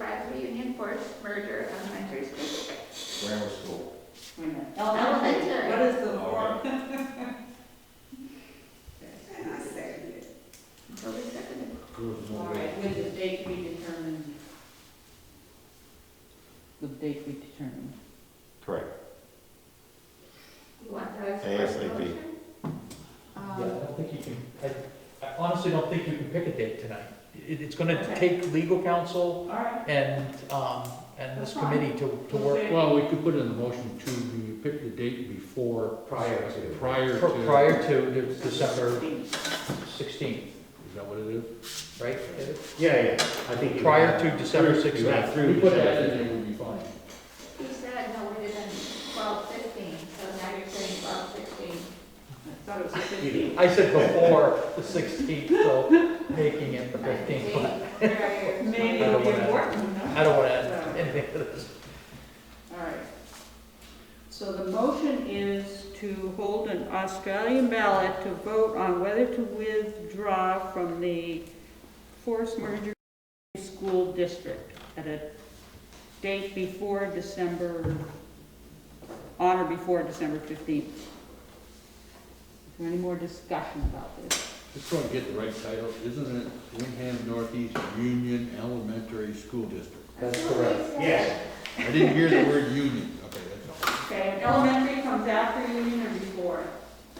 Iowa Union Force merger elementary school. Grammar school. Wait a minute. Elementary. What is the form? Okay. I second it. Toby seconded. Good All morning. right, with the date we determined. The date we determined. Correct. You want that as a ASAP. first motion? Yeah, I Um, don't think you can, I- I honestly don't think you can pick a date tonight. It, it's gonna Okay. take legal counsel all right, and, um, and That's this fine. committee to, to work Well, we could put in the motion to, be- pick the date before, prior, prior pr- to. prior to the December sixteenth, Is that what it is? right? David? Yeah, yeah, I think. you Prior have- to December through- you have 16th. through We put that December in, and it would be fine. He said no later than twelve fifteen, so now you're saying twelve sixteen. I thought it was the fifteenth. I said before the sixteenth, so making it the fifteenth. Maybe I it'll don't be wanna- important, no? I don't wanna add anything to this. All right. So the motion is to hold an Australian ballot to vote on whether to withdraw from the forced merger school district at a date before December, on or before December 15th. Is there any more discussion about this? Just so I get the right title, isn't it Wyndham Northeast Union Elementary School District? That's correct. Yes. I didn't hear the word union, okay, that's all. Okay, elementary comes after union or before?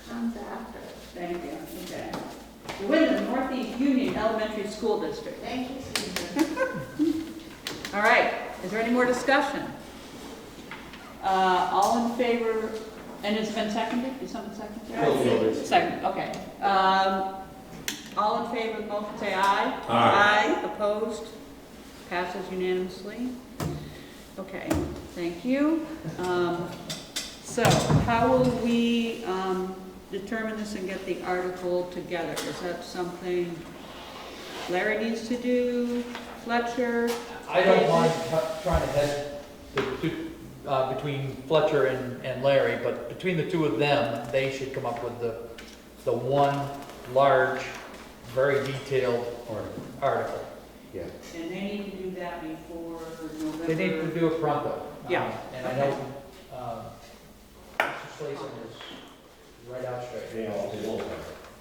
Comes after. Thank you, okay. The Wyndham Northeast Union Elementary School District. Thank you, Susan. All right, is there any more discussion? Uh, all in favor, and it's been seconded, did someone second Bill it? Willis. Second, okay. Um, all in favor of the motion, say aye. Aye. Aye, opposed, passes unanimously. Okay, thank you. Um, so how will we, um, determine this and get the article together? Is that something Larry needs to do, Fletcher? I don't mind t- trying to head the two, uh, between Fletcher and, and Larry, but between the two of them, they should come up with the, the one large, very detailed Or, article. yeah. And they need to do that before November. They need to do it pronto. Yeah. Um, And I know, um, Mr. Slayson is right out straight, They all do.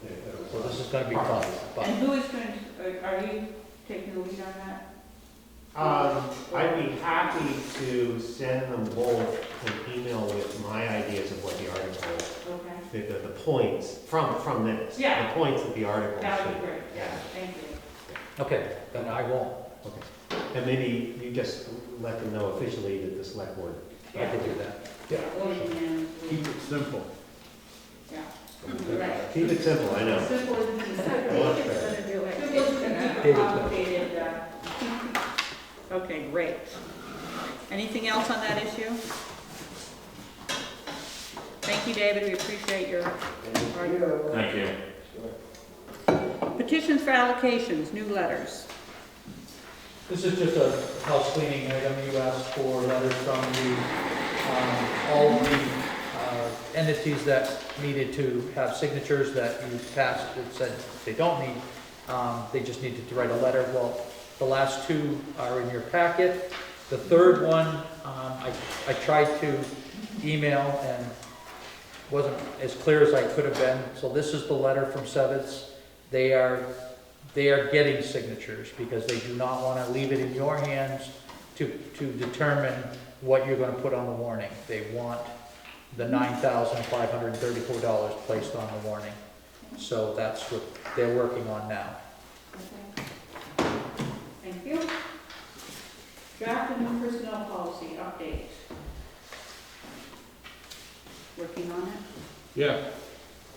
Yeah, so this that'll- is gonna be fun, but. And who is going to, are you taking the lead on that? Um, I'd be happy to send them both an email with my ideas of what the article, Okay. the, the the points from, from this. Yeah. The points that the article That would be should, great. yeah, Thank you. Okay, then I won't, okay. And maybe you just let them know officially that the select board. I can do that. Yeah. Voting Keep and, it simple. yeah. Right. Keep it simple, I know. Simple isn't So easy. David's gonna do it. Simple isn't David. complicated. uh, Okay, great. Anything else on that issue? Thank you, David, we appreciate your hard work. Thank you. Petitions for allocations, new letters. This is just a house cleaning item, you asked for letters from the, um, all the uh, entities that needed to have signatures that you passed, that said they don't need, um, they just needed to write a letter. Well, the last two are in your packet. The third one, um, I, I tried to email and wasn't as clear as I could have been. So this is the letter from Sevitz. They are they are getting signatures because they do not want to leave it in your hands to, to determine what you're going to put on the warning. They want the nine thousand five hundred and thirty-four dollars placed on the warning. So that's what they're working on now. Okay. Thank you. Draft a new personnel policy update. Working on it? Yeah.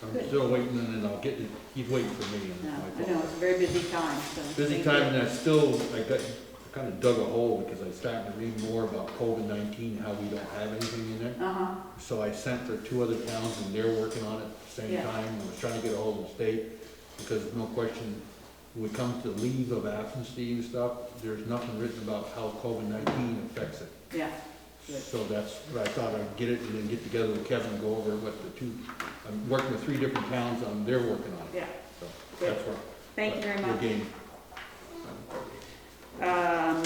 I'm Good. still waiting, and then I'll get, it. he's waiting for me. and No, my I know, it's a very busy time, so. Busy thank you. time, and I still, I got, I kinda dug a hole, because I started to read more about COVID nineteen, how we don't have anything in there. Uh-huh, So I sent to two other towns, and they're working on it at the same Yeah. time, and was trying to get a hold of the state, because no question, when it comes to leave of absentee and stuff, there's nothing written about how COVID nineteen affects it. yeah, Good. So that's what I thought, I'd get it, and then get together with Kevin, and go over what the two, I'm working with three different towns, and they're working on it, yeah. so Good. that's where. Thank you very Your much. game. Um,